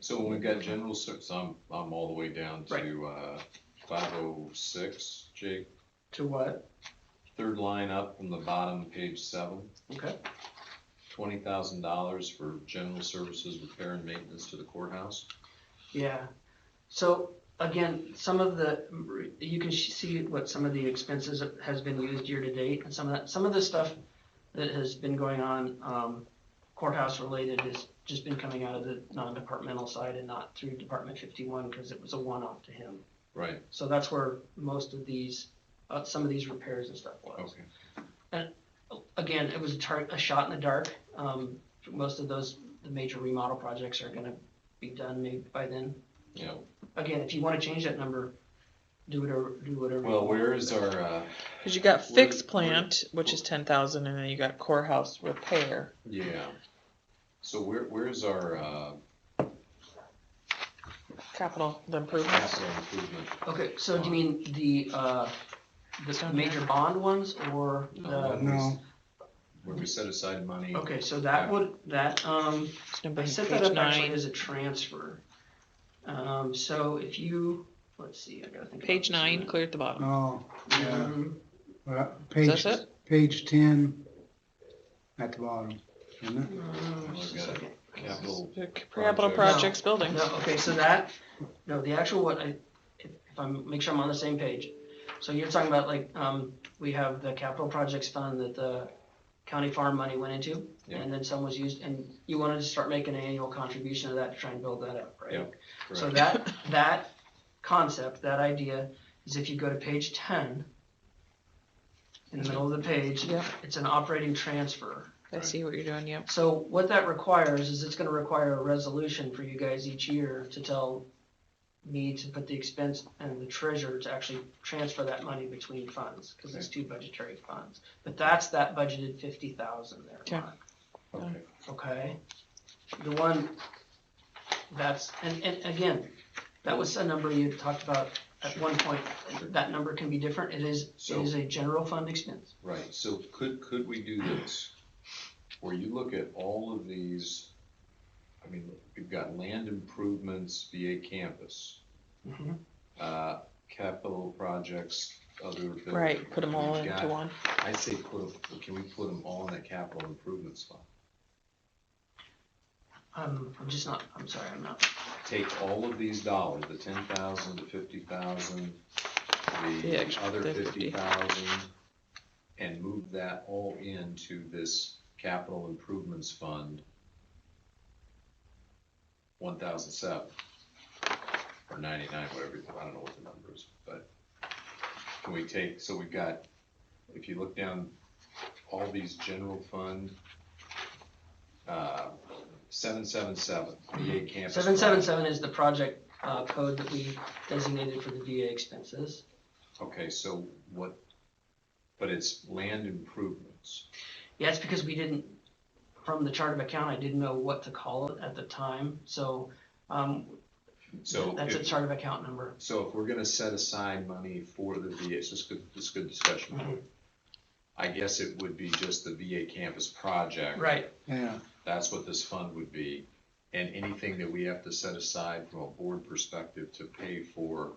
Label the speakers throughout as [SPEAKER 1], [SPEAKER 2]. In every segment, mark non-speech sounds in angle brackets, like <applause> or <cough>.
[SPEAKER 1] So when we've got general service, I'm, I'm all the way down to, uh, five oh six, Jake,
[SPEAKER 2] To what?
[SPEAKER 1] third line up from the bottom, page seven.
[SPEAKER 2] Okay.
[SPEAKER 1] Twenty thousand dollars for general services, repair and maintenance to the courthouse.
[SPEAKER 2] Yeah. So again, some of the, you can sh- see what some of the expenses has been used year to date and some of that, some of the stuff that has been going on, um, courthouse related has just been coming out of the non-departmental side and not through Department fifty-one because it was a one-off to him.
[SPEAKER 1] Right,
[SPEAKER 2] So that's where most of these, uh, some of these repairs and stuff was.
[SPEAKER 1] okay.
[SPEAKER 2] again, it was a tar- a shot in the dark. Um, most of those, the major remodel projects are gonna be done maybe by then.
[SPEAKER 1] Yeah,
[SPEAKER 2] Again, if you wanna change that number, do whatever, do whatever. you
[SPEAKER 1] well,
[SPEAKER 2] want.
[SPEAKER 1] where is our, uh,
[SPEAKER 3] Cause you got
[SPEAKER 1] We're-
[SPEAKER 3] fixed
[SPEAKER 1] we're-
[SPEAKER 3] plant, which is ten thousand, and then you got courthouse repair.
[SPEAKER 1] yeah. So where, where's our, uh,
[SPEAKER 3] Capital improvements.
[SPEAKER 1] capital improvement?
[SPEAKER 2] Okay, so do you mean the, uh, the
[SPEAKER 3] Down
[SPEAKER 2] major
[SPEAKER 3] there.
[SPEAKER 2] bond ones or
[SPEAKER 1] Uh,
[SPEAKER 2] the,
[SPEAKER 4] No.
[SPEAKER 1] Where we set aside money.
[SPEAKER 2] okay, so that would, that, um,
[SPEAKER 3] It's number
[SPEAKER 2] I set that
[SPEAKER 3] page
[SPEAKER 2] up actually
[SPEAKER 3] nine.
[SPEAKER 2] as a transfer. Um, so if you, let's see, I gotta think. about
[SPEAKER 3] Page
[SPEAKER 2] this a
[SPEAKER 3] nine,
[SPEAKER 2] minute.
[SPEAKER 3] clear at the bottom.
[SPEAKER 4] Oh, yeah.
[SPEAKER 2] Mhm.
[SPEAKER 4] Uh,
[SPEAKER 3] Is
[SPEAKER 4] Page,
[SPEAKER 3] that
[SPEAKER 4] page ten at the bottom, isn't it?
[SPEAKER 2] Um, just a
[SPEAKER 1] I've got it.
[SPEAKER 2] second.
[SPEAKER 1] Capital,
[SPEAKER 3] Capital
[SPEAKER 1] projects.
[SPEAKER 3] projects, buildings.
[SPEAKER 2] No, okay, so that, no, the actual what I, if if I'm, make sure I'm on the same page. So you're talking about like, um, we have the capital projects fund that the county farm money went into?
[SPEAKER 1] Yeah.
[SPEAKER 2] And then some was used, and you wanted to start making an annual contribution to that to try and build that up, right?
[SPEAKER 1] Yeah,
[SPEAKER 2] So
[SPEAKER 1] correct,
[SPEAKER 2] that,
[SPEAKER 1] <laughs>
[SPEAKER 2] that concept, that idea, is if you go to page ten, in the middle of the page,
[SPEAKER 3] Yep,
[SPEAKER 2] it's an operating transfer.
[SPEAKER 3] I see what you're doing, yep.
[SPEAKER 2] So what that requires is it's gonna require a resolution for you guys each year to tell me to put the expense and the treasurer to actually transfer that money between funds, cause it's two budgetary funds. But that's that budgeted fifty thousand
[SPEAKER 3] Okay.
[SPEAKER 2] there, Ron,
[SPEAKER 1] okay,
[SPEAKER 2] okay? The one, that's, and, and again, that was a number you talked about at one point.
[SPEAKER 1] Sure.
[SPEAKER 2] That number can be different, it is, it
[SPEAKER 1] So-
[SPEAKER 2] is a general fund expense.
[SPEAKER 1] right, so could, could we do this? Where you look at all of these, I mean, we've got land improvements, VA campus, uh, capital projects, other. building-
[SPEAKER 3] Right, put them all
[SPEAKER 1] We've
[SPEAKER 3] into
[SPEAKER 1] got-
[SPEAKER 3] one.
[SPEAKER 1] I say put 'em- can we put them all in that capital improvements fund?
[SPEAKER 2] Um, I'm just not, I'm sorry, I'm not,
[SPEAKER 1] Take all of these dollars, the ten thousand, the fifty thousand,
[SPEAKER 3] The
[SPEAKER 1] the
[SPEAKER 3] extra-
[SPEAKER 1] other
[SPEAKER 3] the
[SPEAKER 1] fifty
[SPEAKER 3] 50.
[SPEAKER 1] thousand, and move that all into this capital improvements fund. One thousand seven, or ninety-nine, whatever, I don't know what the number is, but can we take, so we've got, if you look down, all these general fund, uh, seven, seven, seven, VA campus.
[SPEAKER 2] Seven seven seven is the project uh, code that we designated for the VA expenses.
[SPEAKER 1] Okay, so what, but it's land improvements.
[SPEAKER 2] Yeah, it's because we didn't, from the chart of account, I didn't know what to call it at the time, so um,
[SPEAKER 1] So
[SPEAKER 2] that's a
[SPEAKER 1] if,
[SPEAKER 2] chart of account number.
[SPEAKER 1] so if we're gonna set aside money for the VA, this is good, this is good discussion.
[SPEAKER 2] Mhm.
[SPEAKER 1] I guess it would be just the VA campus project.
[SPEAKER 2] Right,
[SPEAKER 4] Yeah,
[SPEAKER 1] That's what this fund would be. And anything that we have to set aside from a board perspective to pay for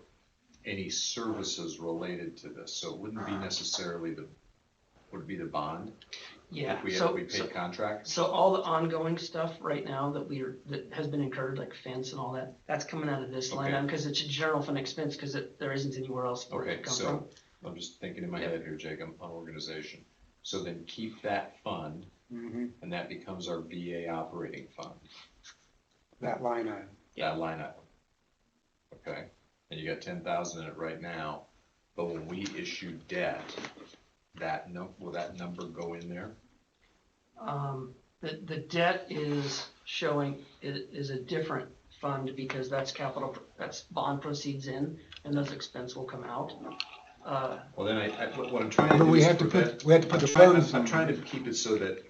[SPEAKER 1] any services related to this. So it wouldn't be necessarily the, would it be the bond?
[SPEAKER 2] yeah,
[SPEAKER 1] If we, if
[SPEAKER 2] so,
[SPEAKER 1] we pay
[SPEAKER 2] so-
[SPEAKER 1] contracts?
[SPEAKER 2] so all the ongoing stuff right now that we are, that has been incurred, like fence and all that, that's coming out of this line
[SPEAKER 1] Okay.
[SPEAKER 2] item, because it's a general fund expense, because it, there isn't anywhere else for it to
[SPEAKER 1] Okay,
[SPEAKER 2] come from.
[SPEAKER 1] so I'm just thinking in my
[SPEAKER 2] Yep.
[SPEAKER 1] head here, Jake, I'm on organization. So then keep that fund
[SPEAKER 4] mhm,
[SPEAKER 1] and that becomes our VA operating fund,
[SPEAKER 4] that line item.
[SPEAKER 1] that line item. Okay, and you got ten thousand in it right now, but when we issue debt, that num, will that number go in there?
[SPEAKER 2] Um, the, the debt is showing, is, is a different fund because that's capital, that's bond proceeds in and those expense will come out. Uh,
[SPEAKER 1] Well, then I, I, what what I'm trying to do
[SPEAKER 4] But
[SPEAKER 1] is.
[SPEAKER 4] we have to
[SPEAKER 1] prevent-
[SPEAKER 4] put, we have to put
[SPEAKER 1] I'm
[SPEAKER 4] the
[SPEAKER 1] trying,
[SPEAKER 4] funds
[SPEAKER 1] I'm- I'm trying
[SPEAKER 4] on.
[SPEAKER 1] to keep it so that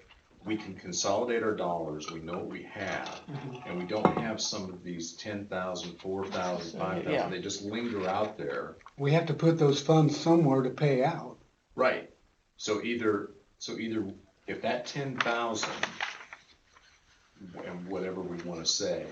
[SPEAKER 1] we can consolidate our dollars, we know what we have.
[SPEAKER 2] Mhm.
[SPEAKER 1] And we don't have some of these ten thousand, four thousand, five
[SPEAKER 3] Yeah.
[SPEAKER 1] thousand, they just linger out there.
[SPEAKER 4] We have to put those funds somewhere to pay out.
[SPEAKER 1] Right, so either, so either, if that ten thousand, and whatever we wanna say,